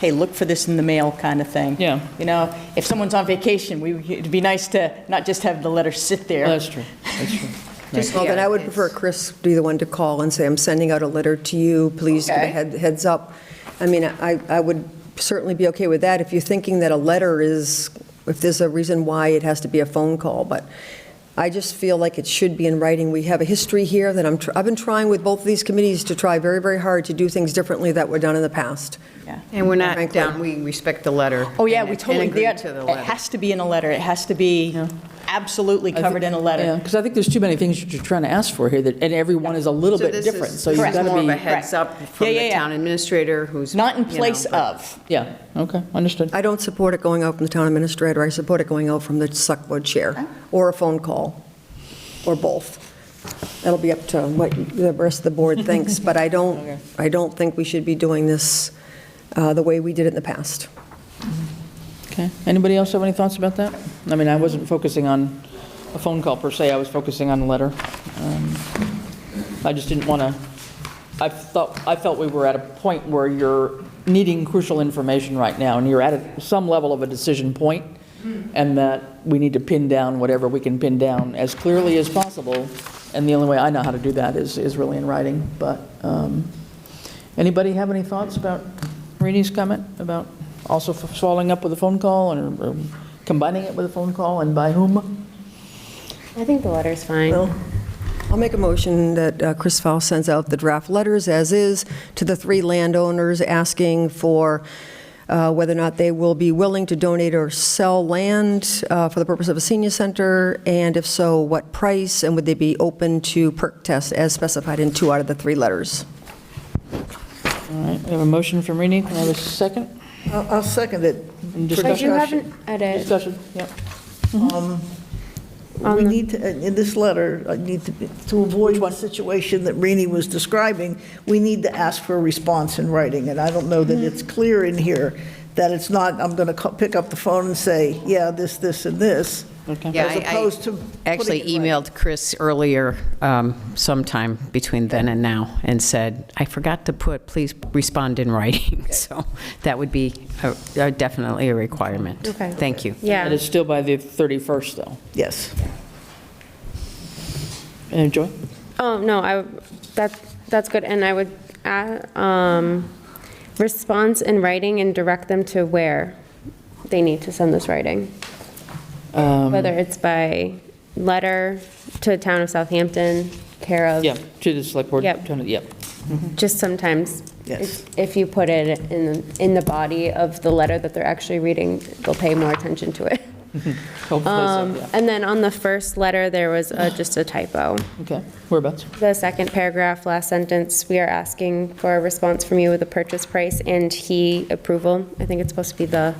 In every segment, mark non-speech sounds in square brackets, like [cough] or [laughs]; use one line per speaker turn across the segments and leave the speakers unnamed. hey, look for this in the mail kind of thing.
Yeah.
You know, if someone's on vacation, we, it'd be nice to not just have the letter sit there.
That's true, that's
[laughs]
true.
Just-
Well, then
yeah,
I would
it's-
prefer Chris be the one to call and say, I'm sending out a letter to you, please give a
Okay.
head- heads up. I mean, I, I would certainly be okay with that if you're thinking that a letter is, if there's a reason why it has to be a phone call, but I just feel like it should be in writing. We have a history here that I'm, tr- I've been trying with both of these committees to try very, very hard to do things differently that were done in the past.
Yeah.
And we're not
Frankly.
down, we respect the letter.
Oh, yeah,
and-
we totally,
And agree
there-
to the
it
letter.
has to be in a letter. It has to be absolutely covered in a letter.
Because I think there's too many things that you're trying to ask for here, that, and every one is a little
So
bit
this
different,
is-
so you've
this is
got
more of a
to be,
heads up from
Yeah, yeah,
the
yeah.
town administrator who's.
Not in
you know,
place
but-
of.
yeah, okay, understood.
I don't support it going out from the town administrator, I support it going out from the select board chair, or a phone call, or both. That'll be up to what the rest of the board thinks, but I don't, I don't think we should be doing this uh, the way we did it in the past.
Okay, anybody else have any thoughts about that? I mean, I wasn't focusing on a phone call per se, I was focusing on the letter. Um, I just didn't want to, I thought, I felt we were at a point where you're needing crucial information right now, and you're at a- some level of a decision point, and that we need to pin down whatever we can pin down as clearly as possible, and the only way I know how to do that is, is really in writing, but, um, anybody have any thoughts about Reenie's comment about also f- following up with a phone call, and or combining it with a phone call, and by whom?
I think the letter's fine.
Well, I'll make a motion that uh, Chris Faust sends out the draft letters as is to the three landowners asking for uh, whether or not they will be willing to donate or sell land uh, for the purpose of a senior center, and if so, what price, and would they be open to perk tests as specified in two out of the three letters?
All right, we have a motion from Rini, can I have a second?
I'll I'll second it.
And
For
I do have
discussion.
an edit.
Discussion, yep.
We need, to uh, in this letter, I need to, be- to avoid the situation that Rini was describing, we need to ask for a response in writing, and I don't know that it's clear in here that it's not, I'm going to pick up the phone and say, yeah, this, this, and this,
Yeah,
as
I- I
opposed to.
Actually
putting it in writing.
emailed Chris earlier um, sometime between then and now and said, I forgot to put, please respond in writing. [laughs] So that would be a- a- definitely a requirement.
Okay.
Thank you.
And
Yeah.
it's still by the 31st, though.
Yes.
And Joy?
Oh, no, I, that, that's good. And I would add, um, response in writing and direct them to where they need to send this writing.
Um,
Whether it's by letter to the town of Southampton, care of.
Yeah, to the select board.
Yep.
Yep.
Just sometimes,
Yes.
if if you put it in, in the body of the letter that they're actually reading, they'll pay more attention to it.
Hopefully so,
Um,
yeah.
And then on the first letter, there was uh, just a typo.
Okay, whereabouts?
The second paragraph, last sentence, we are asking for a response from you with a purchase price and he approval. I think it's supposed to be the,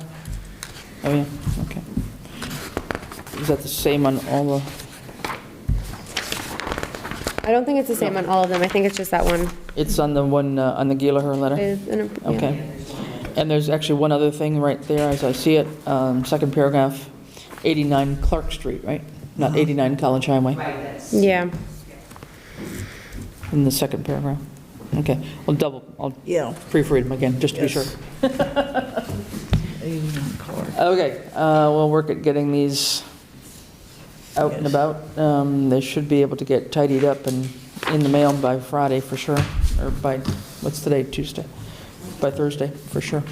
Oh, yeah, okay. Is that the same on all the,
I don't think it's the same on all of them. I think it's just that one.
it's on the one, uh, on the Gila letter?
with an appro- yeah.
Okay. And there's actually one other thing right there, as I see it, um, second paragraph, 89 Clark Street, right? Not
Mm-hmm.
89 College Highway,
Yeah.
in the second paragraph. Okay, I'll double, I'll
Yeah.
proofread them again, just to be sure.
Yes. [laughs]
Okay, uh, we'll work at getting these out and
Yes.
about. Um, They should be able to get tidied up and in the mail by Friday for sure, or by, what's today, Tuesday? By Thursday, for sure.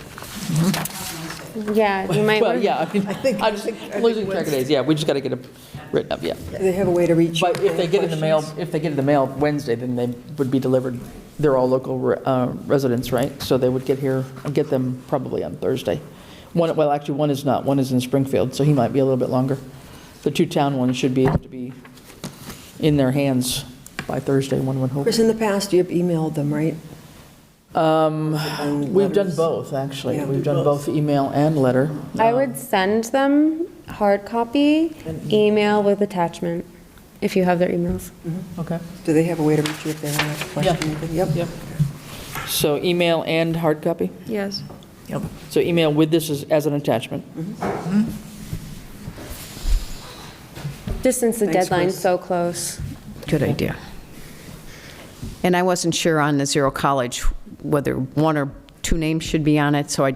Yeah, you might,
Well,
want-
yeah, I mean,
think-
I'm just
I think
losing track of days, yeah, we just got to get them written up, yeah.
Do they have a way to reach?
But if they get in the mail, if they get in the mail Wednesday, then they would be delivered, they're all local uh, residents, right? So they would get here, I'll get them probably on Thursday. One, well, actually, one is not, one is in Springfield, so he might be a little bit longer. The two town ones should be able to be in their hands by Thursday, one would hope.
Chris, in the past, you have emailed them, right? Um,
We've done both, actually,
Yeah.
we've done both email and letter.
I would send them hard copy,
e-
email with attachment, if you have their emails.
Okay.
Do they have a way to reach you if they have a question? Yep.
Yep. So email and hard copy?
Yes.
Yep.
So email with this as, as an attachment?
Just since the
Thanks,
deadline's
Chris.
so close.
Good idea. And I wasn't sure on the Zero College whether one or two names should be on it, so I just